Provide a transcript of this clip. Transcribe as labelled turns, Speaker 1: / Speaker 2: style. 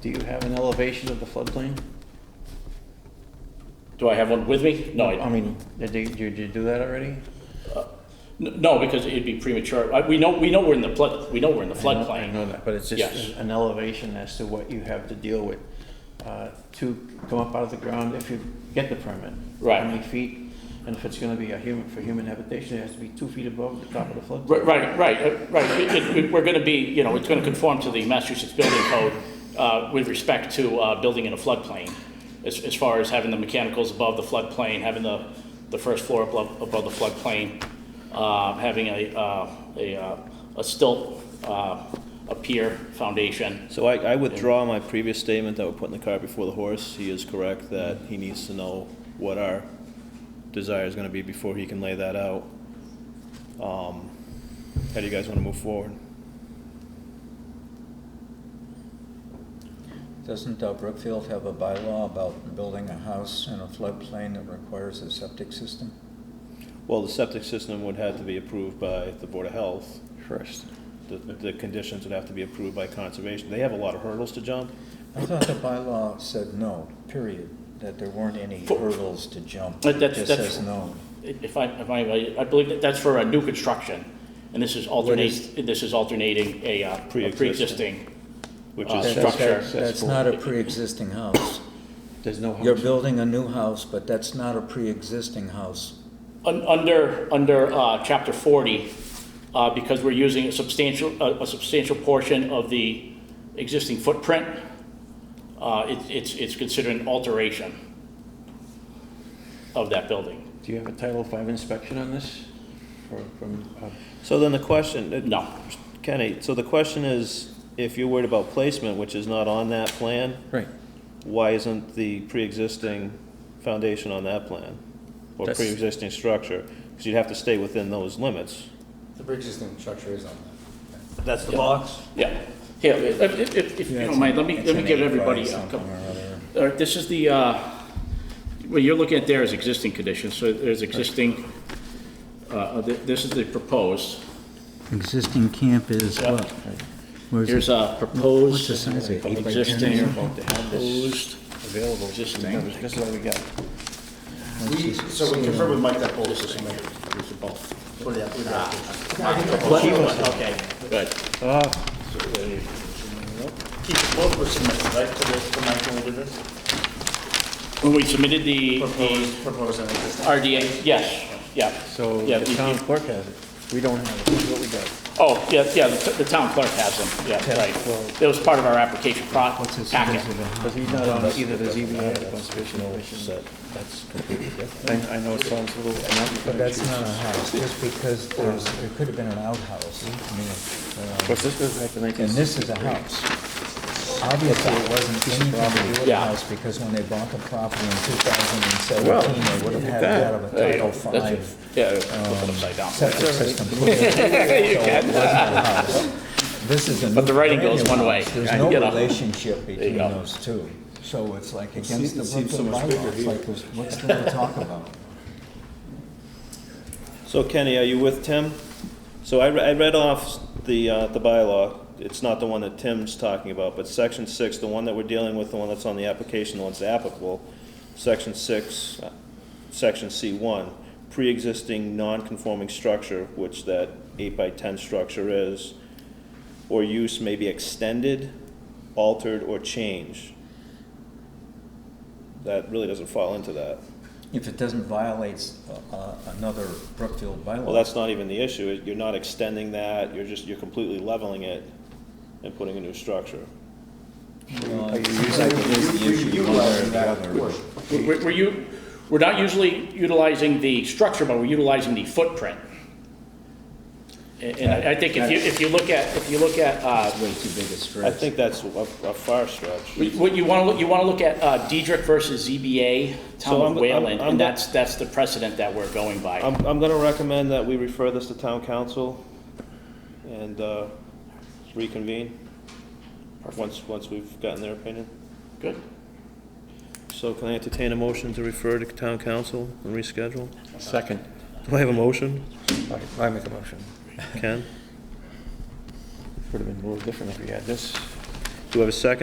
Speaker 1: Do you have an elevation of the floodplain?
Speaker 2: Do I have one with me? No, I,
Speaker 1: I mean, did you, did you do that already?
Speaker 2: n- no, because it'd be premature. I- We know, we know we're in the flood, we know we're in the
Speaker 1: I know- I
Speaker 2: floodplain.
Speaker 1: know that, but it's
Speaker 2: Yes.
Speaker 1: just an elevation as to what you have to deal with uh, to come up out of the ground if you get the permit.
Speaker 2: Right.
Speaker 1: How many feet, and if it's gonna be a human, for human habitation, it has to be two feet above the top of the flood.
Speaker 2: Ri- Right, right, uh, right. It- it- we- We're going to be, you know, it's going to conform to the Massachusetts Building Code uh, with respect to uh, building in a floodplain, as, as far as having the mechanicals above the floodplain, having the, the first floor above, above the floodplain, uh, having a, uh, a, uh, a stilt, uh, a pier foundation.
Speaker 3: So I, I withdraw my previous statement that we're putting the cart before the horse. He is correct that he needs to know what our desire is gonna be before he can lay that out. Um, How do you guys wanna move forward?
Speaker 4: Doesn't uh, Brookfield have a bylaw about building a house in a floodplain that requires a septic system?
Speaker 3: Well, the septic system would have to be approved by the Board of Health.
Speaker 1: First.
Speaker 3: The, the conditions would have to be approved by conservation. They have a lot of hurdles to jump.
Speaker 4: I thought the bylaw said no, period, that there weren't any hurdles to jump.
Speaker 2: But that's-
Speaker 4: It
Speaker 2: that's-
Speaker 4: just says no.
Speaker 2: If I, if I, I believe that that's for a new construction, and this is alternating, this is alternating a uh, a
Speaker 3: Pre-existing.
Speaker 2: pre-existing.
Speaker 3: Which
Speaker 2: Uh,
Speaker 3: is,
Speaker 4: That's-
Speaker 2: structure.
Speaker 4: that's- That's not a pre-existing house.
Speaker 1: There's no house.
Speaker 4: You're building a new house, but that's not a pre-existing house.
Speaker 2: Un- Under, under uh, Chapter 40, uh, because we're using a substantial, a a substantial portion of the existing footprint, uh, it- it's, it's considered an alteration of that building.
Speaker 1: Do you have a Title V inspection on this? Or from, uh,
Speaker 3: so then the question. it-
Speaker 2: No.
Speaker 3: Kenny, so the question is, if you're worried about placement, which is not on that plan,
Speaker 1: right,
Speaker 3: why isn't the pre-existing foundation on that plan? Or
Speaker 1: That's-
Speaker 3: pre-existing structure? Because you'd have to stay within those limits.
Speaker 5: The pre-existing structure is on that.
Speaker 3: That's the box?
Speaker 2: Yeah. Here, if, if- if, if you
Speaker 4: Yeah,
Speaker 2: don't
Speaker 4: it's
Speaker 2: mind,
Speaker 4: an-
Speaker 2: let me,
Speaker 4: it's
Speaker 2: let me
Speaker 4: an
Speaker 2: give
Speaker 4: 8 by
Speaker 2: everybody a
Speaker 4: something
Speaker 2: couple.
Speaker 4: or other.
Speaker 2: All right, this is the, uh, what you're looking at there is existing conditions, so there's existing, uh, uh, th- this is the proposed.
Speaker 4: Existing camp is
Speaker 2: Yeah.
Speaker 4: what? Where's
Speaker 2: Here's
Speaker 4: it?
Speaker 2: a
Speaker 4: What's
Speaker 2: proposed,
Speaker 4: the size of it? Eight by ten?
Speaker 2: existing,
Speaker 1: about to have this
Speaker 2: proposed,
Speaker 1: available.
Speaker 2: Existing.
Speaker 1: This is what we got.
Speaker 5: We, so we confirmed with Mike that both is made, we should both. For the, for the application.
Speaker 6: Okay.
Speaker 2: good.
Speaker 1: Ah,
Speaker 6: Keith, both were submitted, right, to this, to Michael with this?
Speaker 2: When we submitted the the
Speaker 6: Proposed, proposed and existing.
Speaker 2: RDA, yes, yeah.
Speaker 1: so
Speaker 2: Yeah,
Speaker 1: the
Speaker 2: you-
Speaker 1: town
Speaker 2: you-
Speaker 1: clerk has it. We don't have it. This is what we got.
Speaker 2: Oh, yeah, yeah, the the town clerk has them, yeah, right. That was part of our application pro-
Speaker 4: What's the
Speaker 2: packet.
Speaker 4: size of the house?
Speaker 1: Because he's not on either the ZBA or the Conservation Commission.
Speaker 3: That's completely different.
Speaker 1: I, I know it sounds a little.
Speaker 4: But that's not a house, just because there's, it could have been an outhouse. I mean, uh,
Speaker 1: But this goes back to nineteen.
Speaker 4: And this is a house. Obviously, it wasn't anything to do with a
Speaker 2: Yeah.
Speaker 4: house, because when they bought the property in 2017, they would have had that of a
Speaker 2: There you
Speaker 4: Title
Speaker 1: oh
Speaker 2: go. That's it.
Speaker 4: V
Speaker 2: Yeah, flip it upside down.
Speaker 4: septic system. So it wasn't a house. This is a new.
Speaker 2: But the writing goes
Speaker 4: brand new
Speaker 2: one way,
Speaker 4: house. There's
Speaker 2: I
Speaker 4: no
Speaker 2: get it.
Speaker 4: relationship between
Speaker 2: go.
Speaker 4: those two, so it's like against the
Speaker 1: it seems so
Speaker 4: Brooklyn
Speaker 1: much bigger
Speaker 4: bylaw. It's
Speaker 1: here.
Speaker 4: like, there's- what's there to talk about?
Speaker 3: So Kenny, are you with Tim? So I, re- I read off the, uh, the bylaw. It's not the one that Tim's talking about, but section six, the one that we're dealing with, the one that's on the application, the one's applicable. Section six, uh, section C one, pre-existing non-conforming structure, which that eight by ten structure is, or use may be extended, altered, or changed. That really doesn't fall into that.
Speaker 4: If it doesn't violate uh, another Brookfield bylaw.
Speaker 3: Well, that's not even the issue, It- you're not extending that, you're just, you're completely leveling it and putting a new structure.
Speaker 4: Well,
Speaker 1: Are you
Speaker 4: it seems
Speaker 1: using-
Speaker 4: like it is the issue one way or the other.
Speaker 2: We're we're you, we're not usually utilizing the structure, but we're utilizing the footprint. And and I I think if you, if you look at, if you look at, uh,
Speaker 5: Way too big a stretch.
Speaker 3: I think that's a, a far stretch.
Speaker 2: What you want to, you want to look at uh, Diedrich versus ZBA, Town
Speaker 3: So
Speaker 2: of
Speaker 3: I'm- I'm-
Speaker 2: Wayland,
Speaker 3: I'm
Speaker 2: and
Speaker 3: go-
Speaker 2: that's, that's the precedent that we're going by.
Speaker 3: I'm, I'm gonna recommend that we refer this to town council and, uh, reconvene, once, once we've gotten their opinion.
Speaker 2: Good.
Speaker 3: So can I entertain a motion to refer to town council and reschedule?
Speaker 1: Second.
Speaker 3: Do I have a motion?
Speaker 1: I make a motion.
Speaker 3: Ken,
Speaker 1: Would have been a little different if we had this.
Speaker 3: do I have a second?